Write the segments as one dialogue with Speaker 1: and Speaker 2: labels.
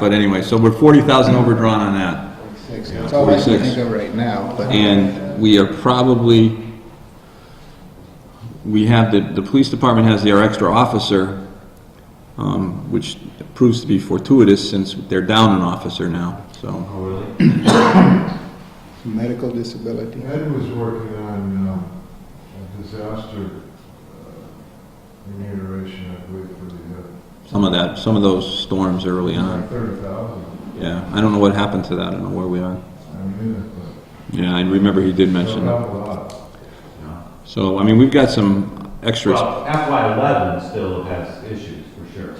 Speaker 1: But anyway, so we're forty thousand overdrawn on that,
Speaker 2: It's all I can
Speaker 1: 46.
Speaker 2: think of right now, but
Speaker 1: and we are probably, we have, the, the police department has their extra officer, um, which proves to be fortuitous since they're down an officer now, so.
Speaker 3: Oh, really?
Speaker 2: medical disability.
Speaker 4: Ed was working on um, a disaster uh, remuneration, I believe, for
Speaker 1: Some of that, some of those storms early
Speaker 4: the
Speaker 1: on,
Speaker 4: thirty thousand.
Speaker 1: yeah, I don't know what happened to that, I don't know where we are.
Speaker 4: I mean, it's
Speaker 1: Yeah, I remember he did mention
Speaker 4: a
Speaker 1: that,
Speaker 4: lot.
Speaker 1: so, I mean, we've got some extras,
Speaker 3: Well, FY eleven still has issues, for sure.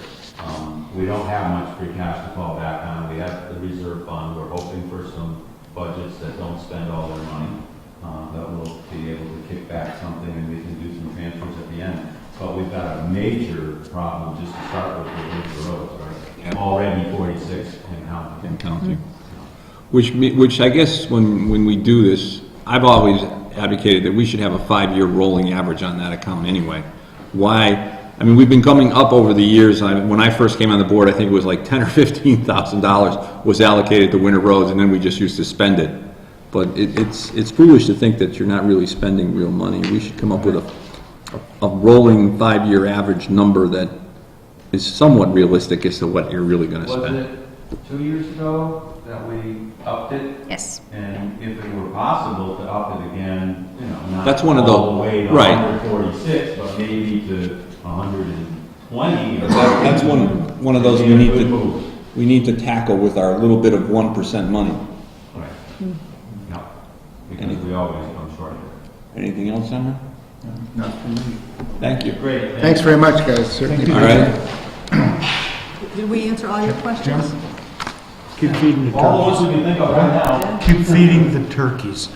Speaker 3: Um, we don't have much free cash to fall back on, we have the reserve fund, we're hoping for some budgets that don't spend all their money, uh, that will be able to kick back something, and we can do some transfers at the end. But we've got a major problem just to start with, with the roads, right?
Speaker 1: Yeah.
Speaker 3: Already forty-six in counting.
Speaker 1: and counting. Which, me- which I guess when, when we do this, I've always advocated that we should have a five-year rolling average on that account anyway. Why, I mean, we've been coming up over the years, I, when I first came on the board, I think it was like ten or fifteen thousand dollars was allocated to winter roads, and then we just used to spend it. But it, it's, it's foolish to think that you're not really spending real money, we should come up with a, a rolling five-year average number that is somewhat realistic as to what you're really gonna
Speaker 3: Was
Speaker 1: spend.
Speaker 3: it two years ago that we upped it
Speaker 5: Yes.
Speaker 3: And if it were possible to up it again, you know, not
Speaker 1: That's one of the-
Speaker 3: all the way to
Speaker 1: right.
Speaker 3: 146, but maybe to 120 or
Speaker 1: That's one, one of those we need
Speaker 3: Good
Speaker 1: to,
Speaker 3: move.
Speaker 1: we need to tackle with our little bit of one percent money.
Speaker 3: Right. No, because we always come short.
Speaker 1: Anything else, Senator?
Speaker 2: Not for me.
Speaker 1: Thank you.
Speaker 3: Great.
Speaker 2: Thanks very much, guys. Certainly.
Speaker 1: All right,
Speaker 5: Did we answer all your questions?
Speaker 6: Keep feeding the
Speaker 3: All
Speaker 6: turkeys.
Speaker 3: those we can think of right now.
Speaker 6: Keep feeding the turkeys.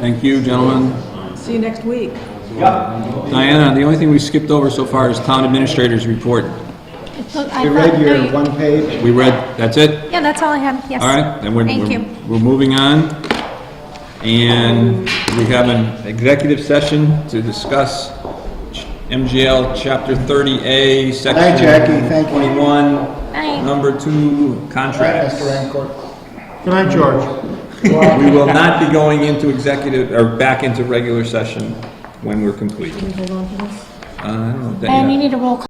Speaker 1: thank you, gentlemen.
Speaker 5: See you next week.
Speaker 3: Yep.
Speaker 1: Diana, the only thing we skipped over so far is town administrators report.
Speaker 2: We read your one page.
Speaker 1: We read, that's it?
Speaker 5: Yeah, that's all I have, yes.
Speaker 1: All right, then we're,
Speaker 5: Thank
Speaker 1: we're-
Speaker 5: you.
Speaker 1: we're moving on. And we have an executive session to discuss MGL Chapter 30A, Section
Speaker 2: Jackie. Thank you.
Speaker 1: 21,
Speaker 5: Bye.
Speaker 1: Number 2,
Speaker 2: All right,
Speaker 1: contracts.
Speaker 2: Mr. Rancourt.
Speaker 6: Good night, George.
Speaker 1: We will not be going into executive, or back into regular session when we're complete. Uh, I don't know.
Speaker 7: And you
Speaker 1: Dana.
Speaker 7: need a roll call